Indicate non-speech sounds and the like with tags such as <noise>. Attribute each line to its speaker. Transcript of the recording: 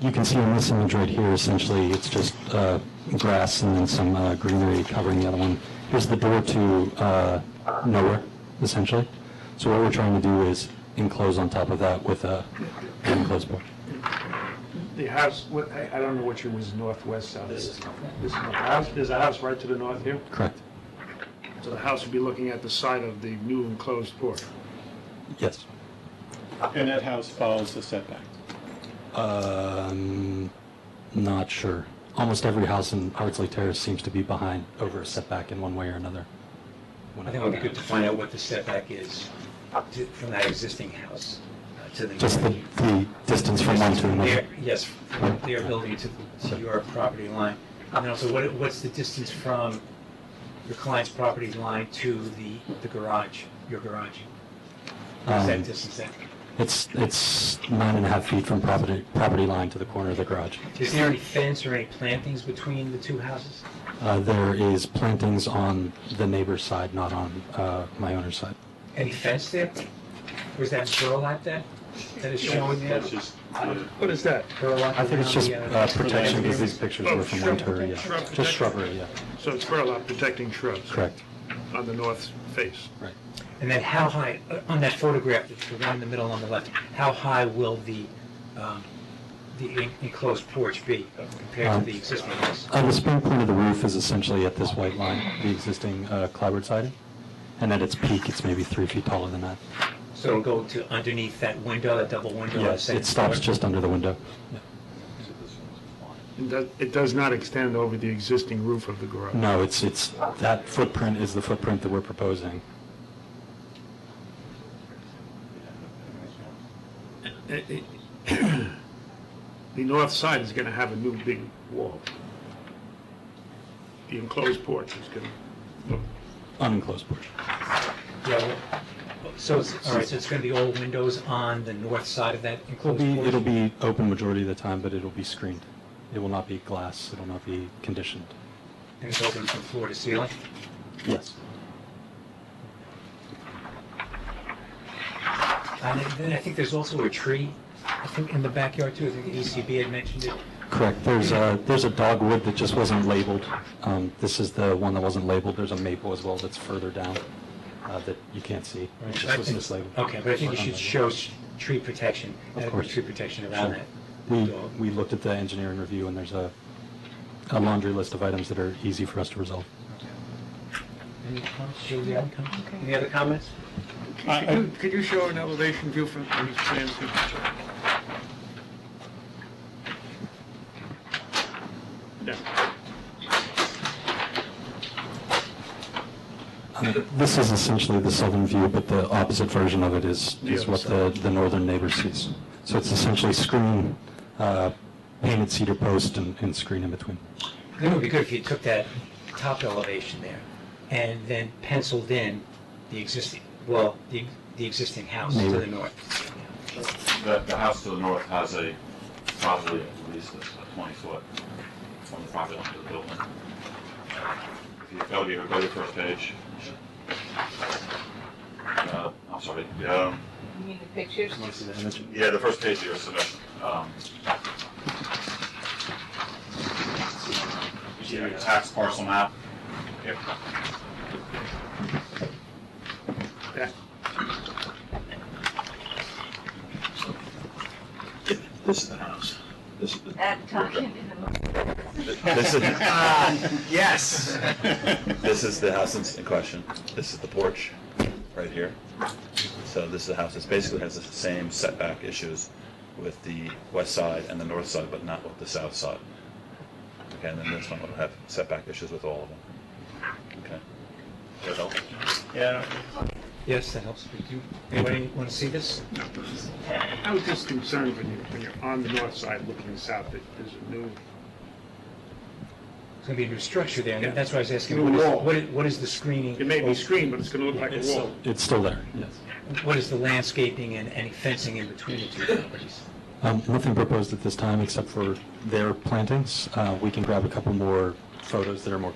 Speaker 1: You can see on this image right here, essentially, it's just uh, grass and then some uh, greenery covering the other one. Here's the door to uh, nowhere, essentially. So what we're trying to do is enclose on top of that with a an enclosed porch.
Speaker 2: The house, what- I I don't know which one was northwest, south. This is northwest. There's a house right to the north here?
Speaker 1: Correct?
Speaker 2: So the house would be looking at the side of the new enclosed porch.
Speaker 1: Yes.
Speaker 3: And that house follows the setback.
Speaker 1: Um, not sure. Almost every house in Hartsley Terrace seems to be behind over a setback in one way or another. When
Speaker 4: I think it would be good to find out what the setback is to- from that existing house uh, to the.
Speaker 1: Just the, the distance from one to another.
Speaker 4: Their- Yes, from their building to, to your property line. And also, what, what's the distance from your client's property line to the, the garage, your garage? What's
Speaker 1: Um,
Speaker 4: that distance then?
Speaker 1: It's, it's nine and a half feet from property, property line to the corner of the garage.
Speaker 4: Is there any fence or any plantings between the two houses?
Speaker 1: Uh, there is plantings on the neighbor's side, not on, uh, my owner's side.
Speaker 4: Any fence there? Was that burlap there? That is shown there?
Speaker 3: That's just,
Speaker 2: What is that?
Speaker 4: Burlap
Speaker 1: I think it's
Speaker 4: around
Speaker 1: just,
Speaker 4: the, uh,
Speaker 1: uh, protection because these pictures
Speaker 2: Oh,
Speaker 1: were from
Speaker 2: shrub-
Speaker 1: winter,
Speaker 2: shrub
Speaker 1: yeah.
Speaker 2: protection.
Speaker 1: Just shrubbery, yeah.
Speaker 2: So it's burlap protecting shrubs?
Speaker 1: Correct,
Speaker 2: On the north face?
Speaker 1: right.
Speaker 4: And then how high, uh, on that photograph, that's the one in the middle on the left, how high will the, um, the en- enclosed porch be compared to
Speaker 1: Um,
Speaker 4: the existing house?
Speaker 1: Uh, the spring point of the roof is essentially at this white line, the existing uh, clapboard siding, and at its peak, it's maybe three feet taller than that.
Speaker 4: So it'll go to underneath that window, that double window? that
Speaker 1: Yes,
Speaker 4: second
Speaker 1: it stops
Speaker 4: floor?
Speaker 1: just under the window. Yeah.
Speaker 2: It does- It does not extend over the existing roof of the garage?
Speaker 1: No, it's, it's, that footprint is the footprint that we're proposing.
Speaker 2: Eh, eh, <clears throat> The north side is going to have a new big wall. The enclosed porch is going to,
Speaker 1: Unenclosed porch.
Speaker 4: Yeah, well, So, it's- all right, so it's going to be all windows on the north side of that
Speaker 1: It'll
Speaker 4: enclosed
Speaker 1: be,
Speaker 4: porch?
Speaker 1: it'll be open majority of the time, but it'll be screened. It will not be glass, it will not be conditioned.
Speaker 4: And it's open from floor to ceiling?
Speaker 1: Yes.
Speaker 4: And then I think there's also a tree, I think, in the backyard too, I think the ECB had mentioned it.
Speaker 1: Correct, there's a, there's a dogwood that just wasn't labeled. Um, This is the one that wasn't labeled, there's a maple as well that's further down uh, that you can't see. It just Um, was mislabeled.
Speaker 4: Okay, but I think you should show s- tree protection,
Speaker 1: Of
Speaker 4: adequate
Speaker 1: course.
Speaker 4: tree protection around
Speaker 1: Sure.
Speaker 4: that.
Speaker 1: We,
Speaker 4: dog.
Speaker 1: we looked at the engineering review, and there's a a laundry list of items that are easy for us to resolve.
Speaker 4: Any comments? Joe, do you have any comments?
Speaker 5: Okay.
Speaker 4: Any other comments?
Speaker 3: I- I-
Speaker 2: Could you show an elevation view from these plans? Yeah.
Speaker 1: Uh, This is essentially the southern view, but the opposite version of it is, is what the, the northern neighbor sees. So it's essentially screen, uh, painted cedar post and, and screen in between.
Speaker 4: I think it would be good if you took that top elevation there and then penciled in the existing, well, the, the existing house to
Speaker 1: Neighbor.
Speaker 4: the north.
Speaker 6: The, the house to the north has a, probably at least a twenty-foot from the property line to the building. Uh, If you go to your, go to your first page. Uh, I'm sorry, um,
Speaker 5: You mean the pictures?
Speaker 4: Want to see that image?
Speaker 6: yeah, the first page of your submission. Um, You see a tax parcel map? Yep.
Speaker 7: This is the house. This is the.
Speaker 5: That time in the movie.
Speaker 7: This is,
Speaker 4: Yes.
Speaker 7: this is the house in- in question. This is the porch, right here. So this is the house, it basically has the same setback issues with the west side and the north side, but not with the south side. Okay, and then this one will have setback issues with all of them. Okay. That help?
Speaker 3: yeah,
Speaker 4: Yes, that helps. Do you- Anybody want to see this?
Speaker 2: I was just concerned when you, when you're on the north side looking south, that there's a new,
Speaker 4: It's going to be a new structure there,
Speaker 2: Yeah.
Speaker 4: and that's why I was asking,
Speaker 2: New
Speaker 4: what
Speaker 2: wall.
Speaker 4: is, what is, what is the screening?
Speaker 2: it may be screened, but it's going to look like a wall.
Speaker 1: It's still there, yes.
Speaker 4: What is the landscaping and any fencing in between the two properties?
Speaker 1: Um, Nothing proposed at this time except for their plantings. Uh, We can grab a couple more photos that are more